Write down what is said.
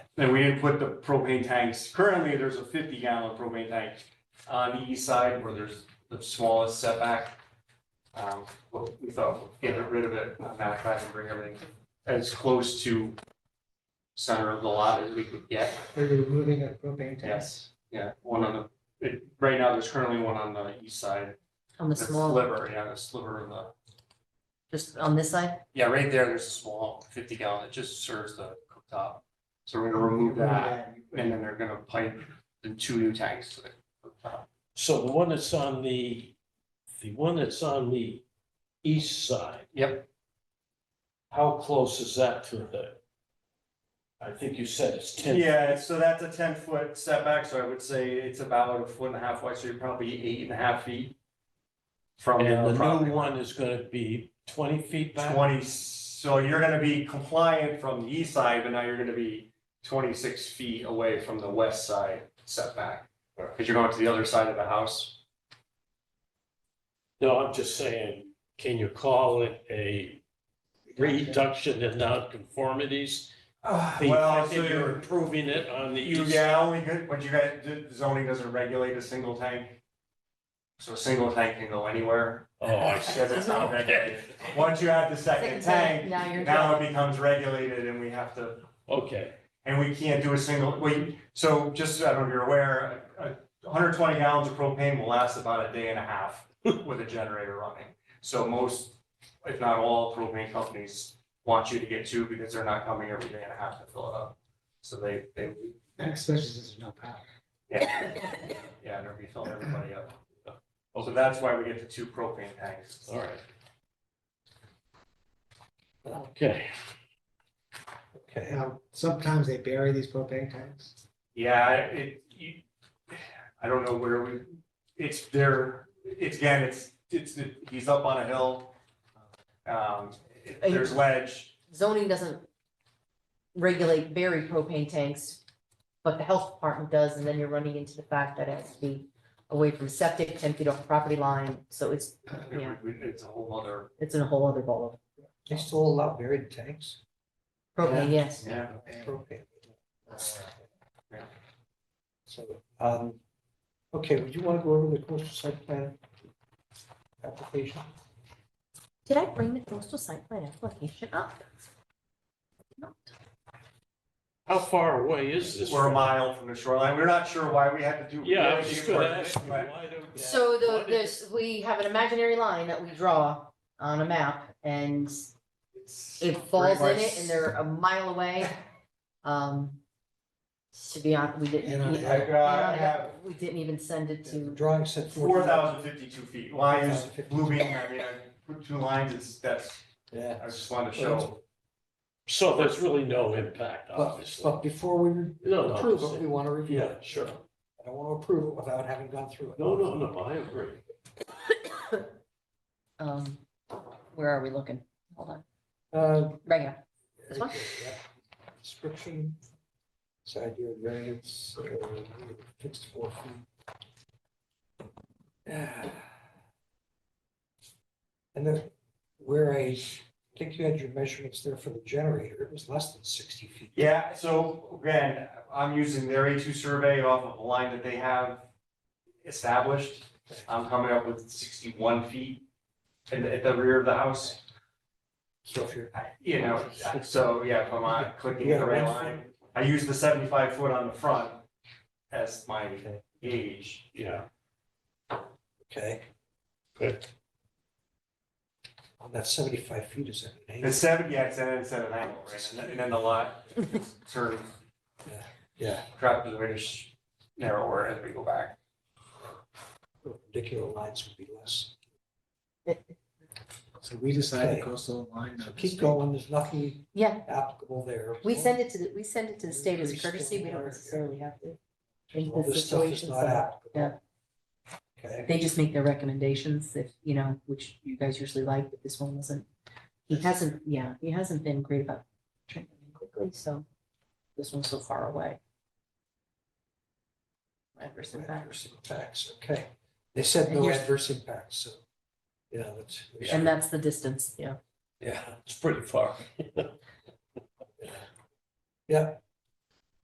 And we didn't put the propane tanks, currently there's a fifty gallon propane tank on the east side where there's the smallest setback. Um, but we thought, we'd get rid of it, on that side and bring everything as close to center of the lot as we could get. They're removing a propane tank. Yes. Yeah, one on the, it, right now, there's currently one on the east side. on the small, Sliver, yeah, the sliver of the, just on this side? yeah, right there, there's a small fifty gallon that just serves the cooktop. So we're gonna remove that, and then they're gonna pipe the two new tanks to the cooktop. So the one that's on the, the one that's on the east side, Yep, how close is that to the? I think you said it's ten. yeah, so that's a ten foot setback, so I would say it's about a foot and a half wide, so you're probably eight and a half feet. From And the the property new one is gonna be twenty feet back? twenty, so you're gonna be compliant from the east side, but now you're gonna be twenty-six feet away from the west side setback. Cause you're going to the other side of the house. No, I'm just saying, can you call it a reduction in nonconformities? The Well, fact that You're improving it on the You, east. yeah, only good, but you guys, the zoning doesn't regulate a single tank. So a single tank can go anywhere. Oh, I see. Because it's not regulated. Once you add the second tank, Now you're. now it becomes regulated and we have to Okay, And we can't do a single, wait, so just, so I don't know if you're aware, a- a hundred twenty gallons of propane will last about a day and a half with a generator running. So most, if not all propane companies want you to get two because they're not coming every day and a half to fill it up. So they, they, Especially since there's no power. yeah, yeah, they're refilling everybody up. So that's why we get the two propane tanks. all right. Okay. Okay. Now, sometimes they bury these propane tanks. Yeah, it, you, I don't know where we, it's there, it's again, it's, it's, he's up on a hill. Um, it- there's ledge, Zoning doesn't regulate buried propane tanks, but the health department does, and then you're running into the fact that it has to be away from septic, ten feet off property line, so it's, Yeah. it's a whole other, it's in a whole other ball They still allow buried tanks? of propane, yes. yeah. Okay. So, um, okay, would you want to go over the coastal site plan application? Did I bring the coastal site plan application up? How far away is this? We're a mile from the shoreline, we're not sure why we had to do. Yeah, I was just gonna ask you, But why don't? So why the, did- this, we have an imaginary line that we draw on a map, and it's it falls in pretty it, and they're a mile away. Um, to be honest, we didn't. And on we- much- I got, I have We didn't even send it The to, drawing said four thousand fifty-two feet, well, I used 4,052. blue beam, I mean, I put two lines, it's, that's, Yeah, I just wanted to show. So there's really no impact, but, obviously. but before we No, no, approve it, obviously. we want to review Yeah, it. sure. I don't want to approve it without having gone through it. No, no, no, I agree. um, where are we looking? Hold on, Uh, right here. This one? Okay, yeah. Description, side yard variance, uh, fixed four feet. And then where I think you had your measurements there for the generator, it was less than sixty feet. Yeah, so again, I'm using their A two survey off of a line that they have established. I'm coming up with sixty-one feet in, the- at the rear of the house, So if you're, you know, so yeah, if I'm on clicking the right line. I use the seventy-five foot on the front as my gauge. Yeah, okay, good. on that seventy-five feet is that an The angle? seven, yeah, it's at it's at an angle, right? And then- And then the lot turns Yeah, trapezoidish narrower as we go back. perpendicular lines would be less. So we decided Okay. coastal line. So keep going, there's nothing Yeah. applicable there. We send it to the, we send it to the state as a courtesy, we don't necessarily have to. Think All the this stuff is situation, not so applicable. Okay. they just make their recommendations if, you know, which you guys usually like, but this one wasn't. He hasn't, yeah, he hasn't been great about trying to move quickly, so this one's so far away. Adverse impact. Adverse impacts, okay. They said And no here's- adverse impacts, so, yeah, that's. And that's the distance, yeah. Yeah, It's pretty far. yeah,